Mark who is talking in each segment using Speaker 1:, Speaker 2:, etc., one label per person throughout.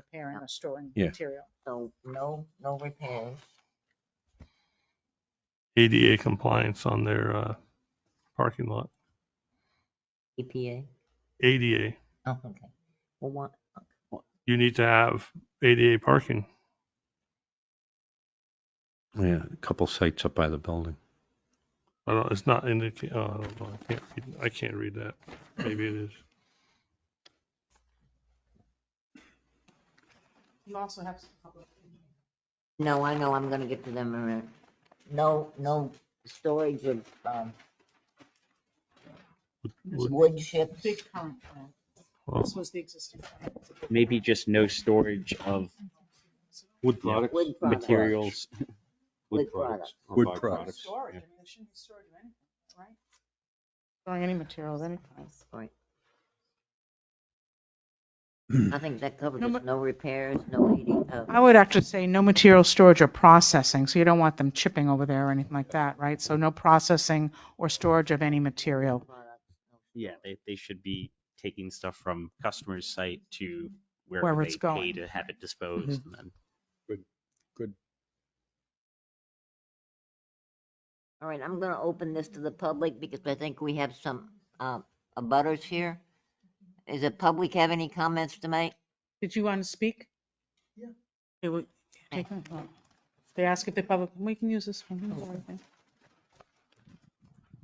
Speaker 1: repairing or storing
Speaker 2: Yeah.
Speaker 1: material.
Speaker 3: So no, no repairs.
Speaker 4: ADA compliance on their uh, parking lot.
Speaker 3: EPA.
Speaker 4: ADA,
Speaker 3: Oh, E okay. Well, what,
Speaker 4: you need to have ADA parking.
Speaker 2: Yeah, a couple sites up by the building.
Speaker 4: I don't, it's not in the, oh, I don't know, I can't, read- I can't read that. Maybe it is.
Speaker 5: You also have some public.
Speaker 3: no, I know, I'm gonna get to them in a minute. No, no storage of, um,
Speaker 4: Wood-
Speaker 3: wood chips.
Speaker 5: Big current plan.
Speaker 4: well,
Speaker 5: This was the existing. plan.
Speaker 6: Maybe just no storage of
Speaker 2: Wood
Speaker 6: products,
Speaker 3: Wood products.
Speaker 6: materials.
Speaker 3: Wood products.
Speaker 2: or Wood products.
Speaker 5: Storage, I mean, there shouldn't be storage of anything, right?
Speaker 7: Storing any material of any kind.
Speaker 3: Right. I think that covers
Speaker 7: No,
Speaker 3: it.
Speaker 7: but-
Speaker 3: No repairs, no eating, uh,
Speaker 7: I would actually say no material storage or processing, so you don't want them chipping over there or anything like that, right? So no processing or storage of any material.
Speaker 3: products, no-
Speaker 6: Yeah, they, they should be taking stuff from customer's site to
Speaker 7: Wherever
Speaker 6: wherever
Speaker 7: it's
Speaker 6: they pay
Speaker 7: going. Mm-hmm.
Speaker 6: to have it disposed and then.
Speaker 3: All right, I'm gonna open this to the public because I think we have some, uh, abutters here. Does the public have any comments to make?
Speaker 7: Did you want to speak?
Speaker 5: Yeah.
Speaker 7: It would- take- oh. They ask if the public, we can use this one. it's everything.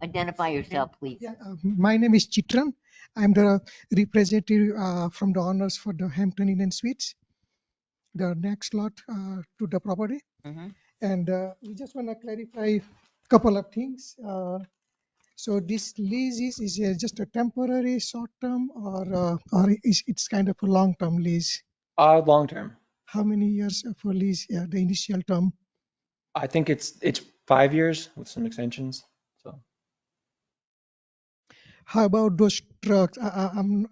Speaker 3: Identify yourself, please.
Speaker 8: Yeah, uh, my name is Chitran. I'm the representative uh, from the owners for the Hampton Inn and Suites, the next lot uh, to the property.
Speaker 3: Mhm.
Speaker 8: And uh, we just want to clarify couple of things. Uh, so this lease is, is uh, just a temporary short term or uh, or is it's kind of a long term lease?
Speaker 9: Uh, long term.
Speaker 8: How many years for lease? Yeah, the initial term.
Speaker 9: I think it's it's five years with some extensions. So
Speaker 8: How about those trucks? I, I, I'm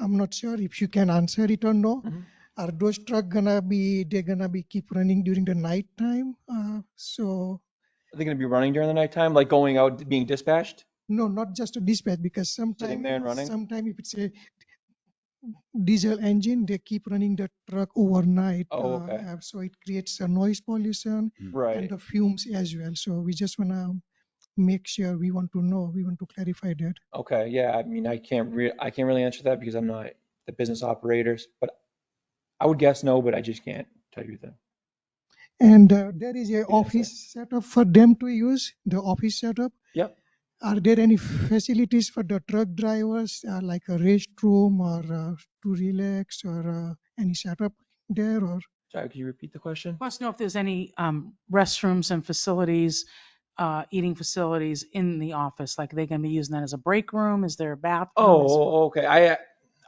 Speaker 8: I'm not sure if you can answer it or no.
Speaker 9: Mhm.
Speaker 8: Are those truck gonna be they're gonna be keep running during the night time? Uh, so
Speaker 9: are they going to be running during the nighttime, like going out being dispatched?
Speaker 8: no, not just a dispatch because sometimes
Speaker 9: there and running?
Speaker 8: sometime if it's a diesel engine, they keep running the truck overnight.
Speaker 9: Oh, okay.
Speaker 8: uh, so it creates a noise pollution and
Speaker 9: Right.
Speaker 8: the fumes as well. So we just wanna make sure we want to know, we want to clarify that.
Speaker 9: Okay. Yeah. I mean, I can't re- I can't really answer that because I'm not the business operators, but I would guess no, but I just can't tell you that.
Speaker 8: And uh, there is a
Speaker 9: sir.
Speaker 8: office setup for them to use, the office setup.
Speaker 9: Yep.
Speaker 8: Are there any facilities for the truck drivers, uh, like a restroom or uh, to relax or uh, any setup there or?
Speaker 9: Sorry, could you repeat the question?
Speaker 7: Wants to know if there's any um, restrooms and facilities, uh, eating facilities in the office, like are they going to be using that as a break room? Is there a bathroom?
Speaker 9: Oh,
Speaker 7: Is-
Speaker 9: oh, okay. I, uh,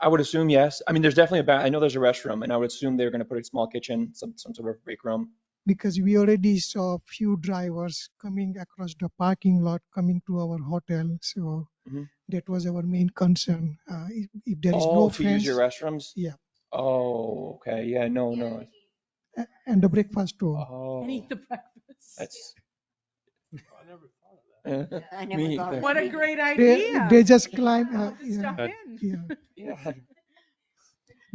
Speaker 9: I would assume yes. I mean, there's definitely a ba, I know there's a restroom and I would assume they're going to put a small kitchen, some, some sort of break room.
Speaker 8: Because we already saw few drivers coming across the parking lot, coming to our hotel, so
Speaker 9: Mhm.
Speaker 8: that was our main concern. Uh, If if there is
Speaker 9: Oh,
Speaker 8: no
Speaker 9: to use
Speaker 8: fence
Speaker 9: your restrooms?
Speaker 8: Yeah.
Speaker 9: Oh, okay. Yeah, no, no.
Speaker 8: a- and the breakfast too.
Speaker 9: Oh,
Speaker 7: And eat the breakfast.
Speaker 9: that's.
Speaker 4: I never thought of that.
Speaker 9: Yeah.
Speaker 3: I
Speaker 9: Me
Speaker 3: never thought
Speaker 9: either.
Speaker 3: of
Speaker 7: What a
Speaker 3: that.
Speaker 7: great
Speaker 8: They
Speaker 7: idea.
Speaker 8: they just climb, uh,
Speaker 7: Put this
Speaker 8: yeah.
Speaker 7: stuff
Speaker 6: Uh,
Speaker 7: in.
Speaker 8: yeah.
Speaker 9: Yeah.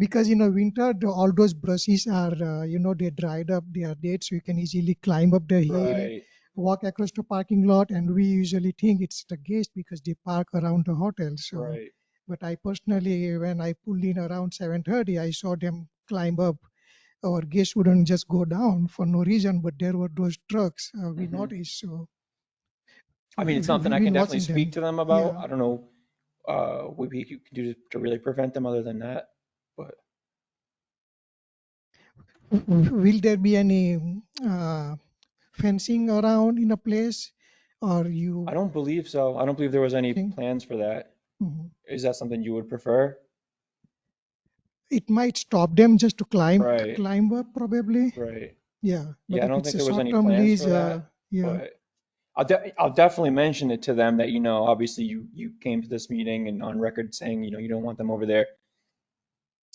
Speaker 8: because in the winter the, all those brushes are uh, you know they dried up they are dead so you can easily climb up the hill
Speaker 9: Right.
Speaker 8: walk across the parking lot and we usually think it's the guest because they park around the hotel so
Speaker 9: Right.
Speaker 8: but i personally when i pulled in around 7.30 i saw them climb up our guests wouldn't just go down for no reason but there were those trucks uh, we
Speaker 9: Mhm.
Speaker 8: noticed so
Speaker 9: I mean, it's
Speaker 8: we-
Speaker 9: something I
Speaker 8: we've
Speaker 9: can
Speaker 8: been
Speaker 9: definitely
Speaker 8: watching
Speaker 9: speak
Speaker 8: them.
Speaker 9: to them about.
Speaker 8: Yeah.
Speaker 9: I don't know, uh, what we could do to- to really prevent them other than that.
Speaker 8: Will there be any uh, fencing around in a place or you?
Speaker 9: I don't believe so. I don't believe there was any
Speaker 8: Okay.
Speaker 9: plans for that.
Speaker 8: Mhm.
Speaker 9: Is that something you would prefer?
Speaker 8: It might stop them just to climb,
Speaker 9: Right.
Speaker 8: climb up probably,
Speaker 9: Right.
Speaker 8: yeah. but
Speaker 9: Yeah, I
Speaker 8: if
Speaker 9: don't
Speaker 8: it's
Speaker 9: think
Speaker 8: a
Speaker 9: there was any
Speaker 8: short-term
Speaker 9: plans
Speaker 8: lease,
Speaker 9: for
Speaker 8: uh,
Speaker 9: that.
Speaker 8: Yeah,
Speaker 9: But I'll de- I'll definitely mention it to them that, you know, obviously you, you came to this meeting and on record saying, you know, you don't want them over there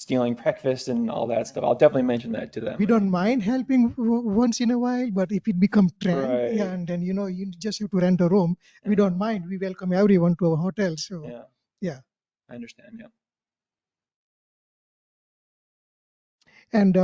Speaker 9: stealing breakfast and all that stuff. I'll definitely mention that to them.
Speaker 8: we don't mind helping w- once in a while, but if it become trend, yeah,
Speaker 9: Right.
Speaker 8: and then, you know, you just have to rent a room. We don't mind, we welcome everyone to our hotel, so.
Speaker 9: Yeah.
Speaker 8: Yeah.
Speaker 9: I understand, yeah.
Speaker 8: And uh,